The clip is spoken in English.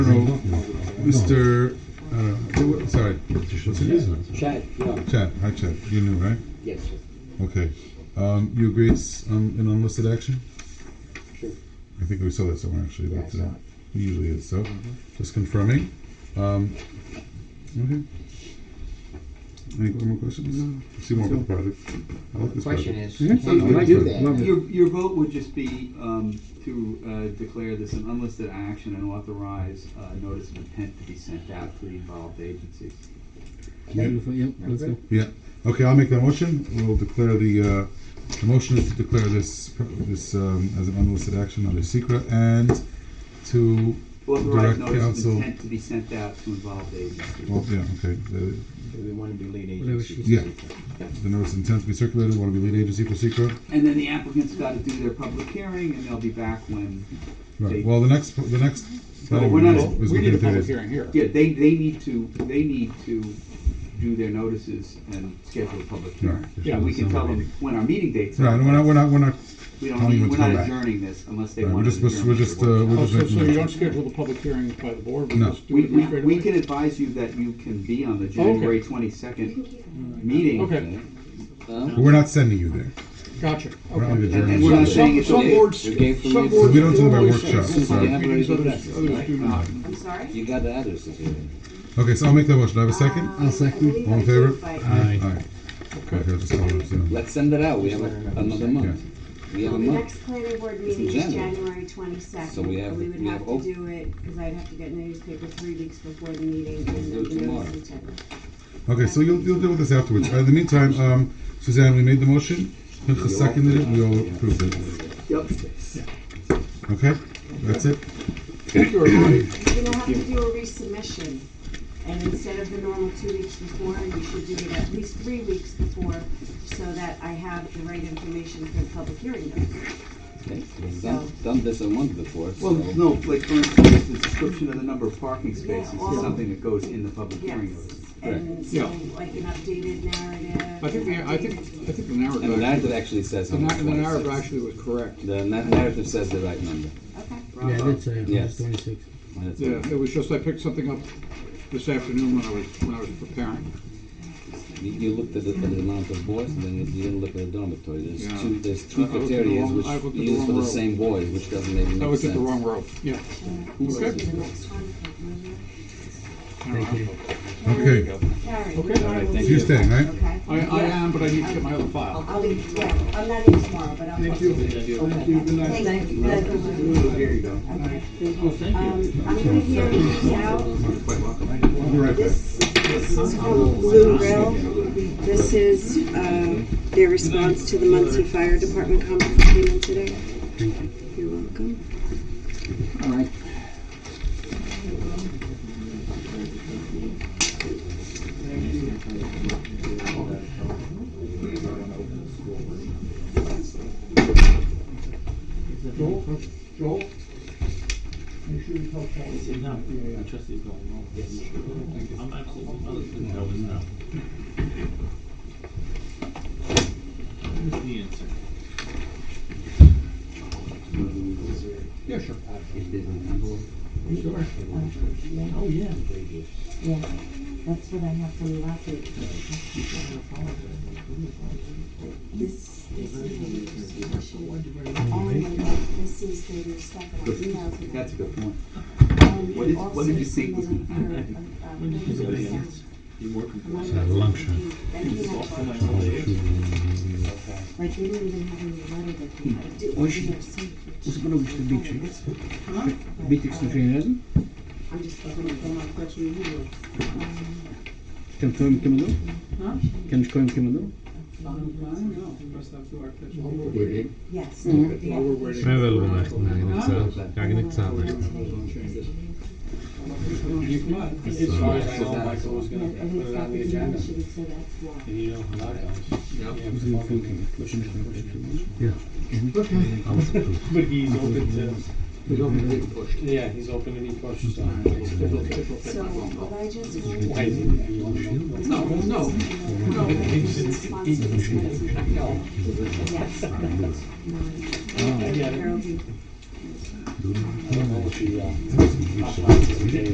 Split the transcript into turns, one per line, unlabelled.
General, Mr., uh, who wa- sorry, what's his name?
Chad, no,
Chad, hi Chad, you knew, right?
yes, sir.
Okay, um, you agree it's, um, an unlisted action?
Sure.
I think we saw that somewhere actually,
Yeah, I
but,
saw
uh,
it. Mm-hmm.
it usually is, so, just confirming, um, okay. Any more questions? See more about the project. I like
The
this
question
project.
is,
Yeah,
can
I like
we do
it.
that?
Love it.
Your, your vote would just be um, to uh, declare this an unlisted action and authorize uh, notice of intent to be sent out to the involved agencies.
Beautiful, yep, let's go.
Yeah, okay, I'll make that motion, we'll declare the, uh, the motion is to declare this, pro- this, um, as an unlisted action under secret and to,
Authorize
Direct
notice
counsel.
of intent to be sent out to involved agencies.
well, yeah, okay, the,
We want to be lead
Whatever she
agency.
yeah, the notice of intent to be circulated, want to be lead agency for secret.
And then the applicant's got to do their public hearing and they'll be back when,
Right, well, the next, the next.
Well, we're not-
is
We need a
within
public
today's-
hearing here.
yeah, they, they need to, they need to do their notices and schedule a public hearing.
Right.
And we can tell them when our meeting dates are.
Right, and we're not, we're not, we're not,
We don't
telling you
need,
when
we're
to come
not
back.
adjourning this unless they
Right, we're
want to
just- we're-
adjourn.
we're
it to
just,
the
uh,
workshop.
we're
Oh,
just
so,
making
so you
motions.
don't schedule the public hearing by the board? we
No.
just do
We,
it
we,
straight
we
away?
can advise you that you can be on the
okay.
January twenty-second meeting.
Okay.
Um,
but we're not sending you there.
Gotcha,
We're not
okay.
even
And- and
adjourning.
we're not
So-
saying-
Some,
it's
some
okay.
boards,
You
some
gave from
boards.
your-
We don't do them by
formally say
workshops,
it's
so-
public meetings,
Yeah.
Others others do not.
I'm sorry?
You got the addresses here.
Okay, so I'll make that motion, I have a second?
Um, I
second.
believe
All in
I did,
favor?
but-
Aye. Okay, I'll just call it, so-
Let's send it out, we have a- another month. We have
Well,
a
the
month.
next planning board
It's in
meeting is
January.
January
So
twenty-second,
we have-
we would
we
have
have
to
op-
do it, because I'd have to get in the newspaper three weeks before the meeting
Let's
and
do it
the
tomorrow.
notice and check.
Okay, so you'll, you'll deal with this afterwards. Uh, In the meantime, um, Suzanne, we made the motion, Pinchas seconded it, we all approved it.
Yep.
Okay, that's it?
Thank you, everybody.
You're gonna Um, have to do a resubmission, and instead of the normal two weeks before, you should do it at least three weeks before, so that I have the right information for the public hearing notice.
Okay, we've Done done this a month before, so.
Well, no, like for instance, the description of the number of parking spaces
Yeah,
is
or-
something that goes in the public hearing
Yes,
notice.
and so like an updated narrative.
I think, the- I think, I think the narrative.
And the
actually-
narrative actually says
The
on the
nar- the narrative
26th.
actually was correct.
The na- narrative says the right number.
Okay.
Yeah, I did say it,
Yes.
it's twenty-six.
And it's-
Yeah, it was just, I picked something up this afternoon when I was, when I was preparing.
You, you looked at the, at the amount of boys, and then you you didn't look at the dormitory. There's
Yeah.
two, there's
I
two
looked at the
criteria
wrong-
which
I looked at the
used for
wrong
the
row.
same boys, which doesn't make any sense.
I was at the wrong row, yeah.
So
Okay.
the next one, maybe.
Thank you.
Okay,
Karen,
Okay.
you
All
are
right,
with
thank
so you're
me,
staying, right?
Okay.
I, I am, but I need to get my other file.
I'll be, yeah, I'm not in tomorrow, but I'll. Thank you. Thank you, Thank you.
There you go.
Okay. Um, I'm gonna hear these out. This, this is called Blue Grill. This is, um, their response to the Muncie Fire Department conference that came in today. You're welcome.
All right. Yeah, sure. Sure.
Oh, yeah. Yeah, that's what I have from last week. This, this is the resolution. And this is the stuff that I emailed to them.
That's a good point.
And
What
we
did- what
also
did you think was
submitted
gonna
her,
happen?
uh, proposal.
Had
Among the
lunch.
things that he had brought. Like, they didn't even have any letter that they had to do.
Oh,
Hoje-
They were sent for
você falou que tem
two
bicho.
hours. Huh?
Bitrix no Fernando,
I'm just looking at them, I've got you here.
tem um filme que mandou? Tem um filme que mandou?
Yes.
Mm-hmm.
Merhaba Martin, sağ ol. Yagnik sağ ol.
Everything's got the initiative, so that's why.
But he's open to. Yeah, he's open to be pushed. so.
So what I just
Why
wanted
is
to
it?
No, no.
know is the response to this letter. Yes.
I get it.
Carol, you-
do that.
I don't know if he, uh,